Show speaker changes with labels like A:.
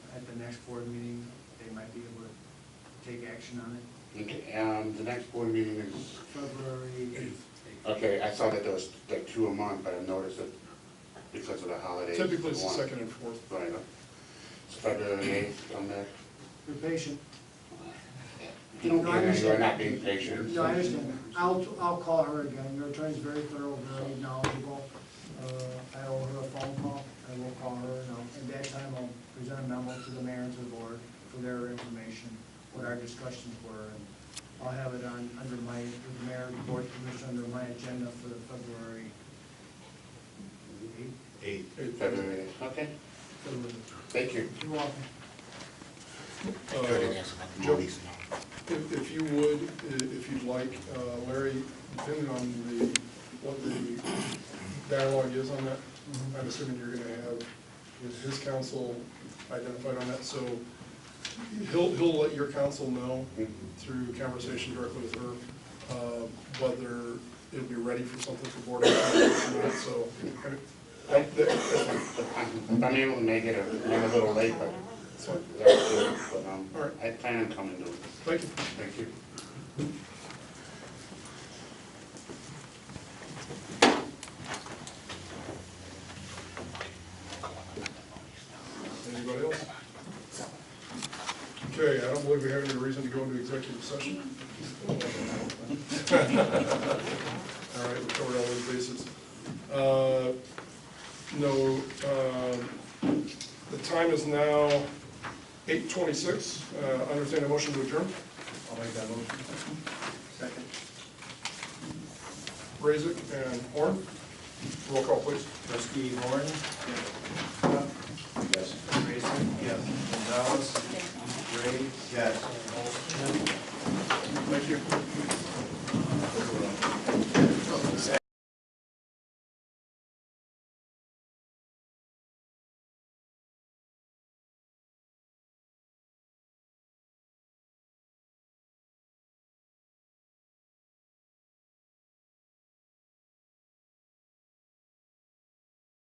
A: next board meeting, they might be able to take action on it.
B: Okay, um, the next board meeting is,
A: February eighth.
B: okay, I saw that there was like two a month, but I noticed that because of the holidays.
C: Typically, it's the
B: one.
C: second and fourth.
B: Right, uh, it's February eighth, I'm not,
A: We're patient.
B: you
A: No, I understand.
B: are not being patient.
A: No, I understand. I'll, I'll call her again. Your attorney's very thorough, very knowledgeable. Uh, I owe her a phone call. I will call her, and I'll, at that time, I'll present a memo to the mayor and to the board for their information, what our discussions were, and I'll have it on, under my, with the mayor, the board commission, under my agenda for the February eighth.
B: Eight. February eighth, okay,
A: February.
B: thank you.
A: You're welcome.
C: Uh, Joe, If, if you would, i- if you'd like, uh, Larry, depending on the, what the dialogue is on that,
A: Mhm.
C: I'm assuming you're gonna have his- his counsel identified on that, so he'll, he'll let your counsel know
B: Mhm.
C: through conversation directly with her, uh, whether it'll be ready for something for board action or not, so. kind of- that- that-
B: I'm I'm able to make it, a- I'm a little late, but,
C: that's fine.
B: but, um,
C: All right.
B: I plan on coming to it,
C: Thank you.
B: thank you.
C: Anybody else? Okay, I don't believe we have any reason to go into executive session. All right, we covered all those bases. Uh, No, um, the time is now eight twenty-six. Uh, Understand a motion to adjourn?
D: I'll make that motion.
A: Second.
C: Raisik and Horn. Roll call, please.
D: Trustee Horn? Yes. Grayson? Yes. Gonzalez? Gray? Yes. Thank you.